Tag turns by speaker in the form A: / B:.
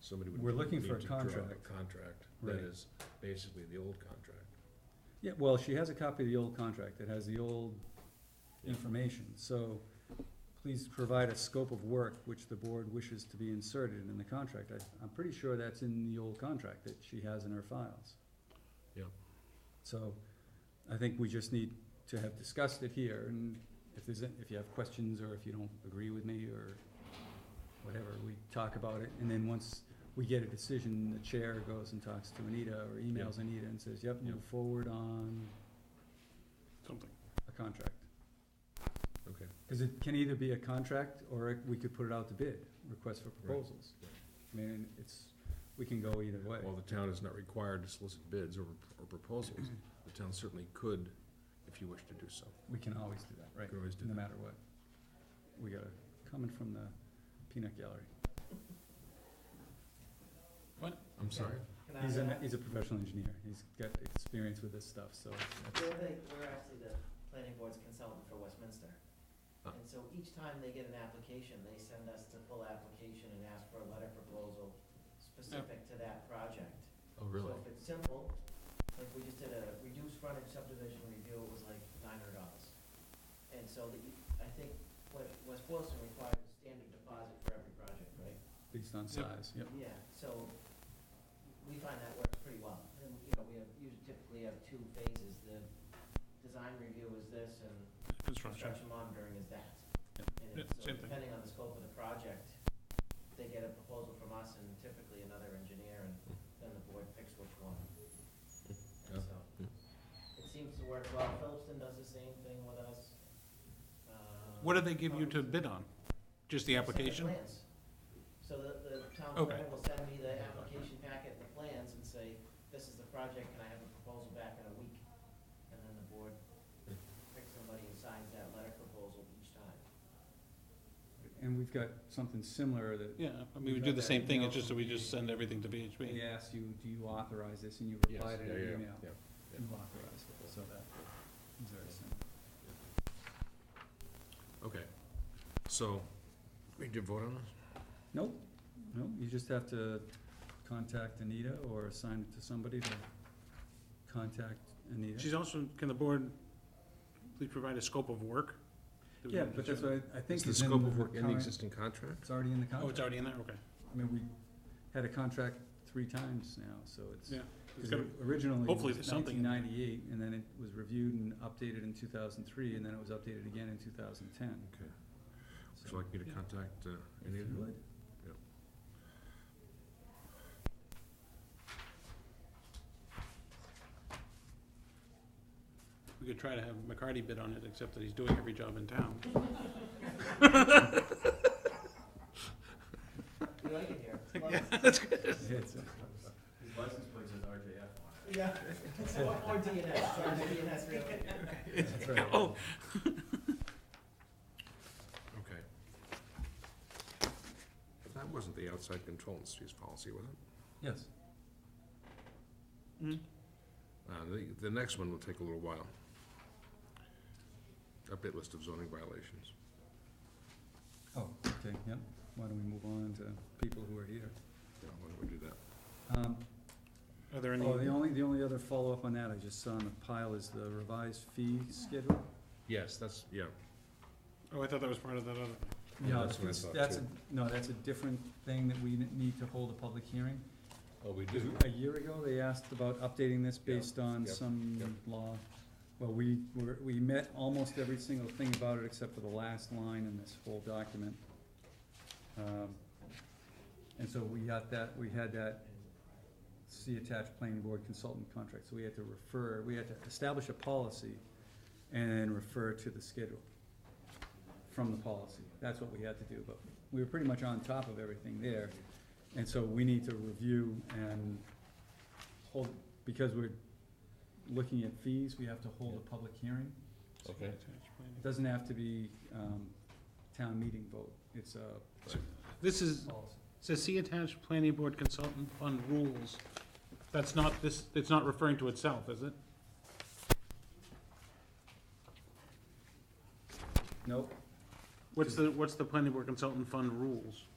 A: somebody would.
B: We're looking
A: need
B: for a
A: to draw up
B: contract.
A: A contract,
B: Right.
A: that is basically the old contract.
B: Yeah, well, she has a copy of the old contract, it has the old information, so please provide a scope of work which the board wishes to be inserted in the contract. I, I'm pretty sure that's in the old contract that she has in her files.
A: Yep.
B: So, I think we just need to have discussed it here, and if there's, a- if you have questions, or if you don't agree with me, or whatever, we talk about it, and then once we get a decision, the chair goes and talks to Anita, or emails Anita and says, yep, move
A: Yep.
B: forward on
C: something.
B: a contract.
A: Okay.
B: Cause it can either be a contract, or it- we could put it out to bid, request for proposals.
A: right.
B: I mean, it's, we can go either way.
A: While the town is not required to solicit bids or, or proposals, the town certainly could, if you wish to do so.
B: We can always do that, right?
A: You can always do
B: No
A: that.
B: matter what. We got a comment from the peanut gallery.
A: I'm sorry.
D: Can I
B: He's
D: add?
B: a, he's a professional engineer. He's got experience with this stuff, so.
D: We're the- we're actually the planning board's consultant for Westminster.
A: Ah.
D: And so each time they get an application, they send us the full application and ask for a letter proposal specific to that project.
A: Oh, really?
D: So if it's simple, like we just did a reduced frontage subdivision review, it was like nine hundred dollars. And so the, I think what West Boylston requires is standard deposit for every project, right?
B: Based on size, yep.
D: Yeah, so we find that works pretty well. And, you know, we have, you typically have two phases. The design review is this and
C: Construction.
D: construction monitoring is that.
B: Yep.
D: And
C: Yeah,
D: it's- so
C: same thing.
D: depending on the scope of the project, they get a proposal from us and typically another engineer and then the board picks which one.
A: Yeah.
D: And so,
A: Yeah.
D: it seems to work well. Phillipston does the same thing with us. Uh,
C: What do they give you to
D: Thompson-
C: bid on? Just the application?
D: Send the plans. So the, the town
C: Okay.
D: planner will send me the application packet, the plans, and say, this is the project, can I have a proposal back in a week? And then the board picks somebody and signs that letter proposal each time.
B: And we've got something similar that
C: Yeah, I mean, we do the same thing, it's just that we just send everything to
B: we
C: BHP.
B: asked you, do you authorize this? And you
A: Yes,
B: replied in
A: yeah,
B: an
A: yeah,
B: email.
A: yeah.
B: You authorized it, so that is very similar.
A: Okay, so, we did vote on this?
B: Nope, no, you just have to contact Anita or assign it to somebody to contact Anita.
C: She's also, can the board please provide a scope of work? that we
B: Yeah,
C: can
B: but that's
C: determine?
B: what I I think
A: Is the
B: is in
A: scope of
B: the
A: work in the
B: current-
A: existing contract?
B: It's already in the
C: Oh,
B: contract.
C: it's already in there, okay.
B: I mean, we had a contract three times now, so it's.
C: Yeah, It's
B: Because
C: gotta-
B: originally it
C: hopefully
B: was
C: there's something
B: nineteen
C: in there.
B: ninety-eight, and then it was reviewed and updated in two thousand three, and then it was updated again in two thousand ten.
A: Okay, would you like me to
C: Yeah.
A: contact uh,
B: If
A: Anita?
B: you would.
C: We could try to have McCarty bid on it, except that he's doing every job in town.
D: We like it here.
B: Yeah, it's, uh,
E: His license plate says RJF on it.
D: Yeah. Or- Or DNS, sorry, DNS really.
B: That's right.
C: Oh,
A: Okay. But that wasn't the outside control industries policy, was it?
B: Yes,
C: mm,
A: Uh, the, the next one will take a little while. Update list of zoning violations.
B: oh, okay, yep, why don't we move on to people who are here?
A: Yeah, why don't we do that?
B: Um,
C: Are there
B: Oh, the
C: any,
B: only, the only other follow-up on that I just saw on the pile is the revised fee schedule.
A: Yes, that's, yeah,
C: oh, I thought that was part of that other thing.
A: Yeah,
B: No,
A: that's what I
B: it's-
A: thought,
B: that's
A: too.
B: a- No, that's a different thing that we n- need to hold a public hearing.
A: oh, we
B: Because
A: do,
B: a year ago, they asked about updating this based on
A: yep, yep.
B: some law. Well, we, were- we met almost every single thing about it except for the last line in this whole document. Um, And so we got that, we had that, see attached planning board consultant contract, so we had to refer, we had to establish a policy and refer to the schedule from the policy. That's what we had to do, but we were pretty much on top of everything there. And so we need to review and hold, because we're looking at fees, we have to hold a public hearing.
A: Okay.
B: It doesn't have to be, um, town meeting vote, it's a
C: This is,
B: policy.
C: says see attached planning board consultant fund rules. That's not, this, it's not referring to itself, is it?
B: Nope,
C: What's the, what's the planning board consultant fund rules?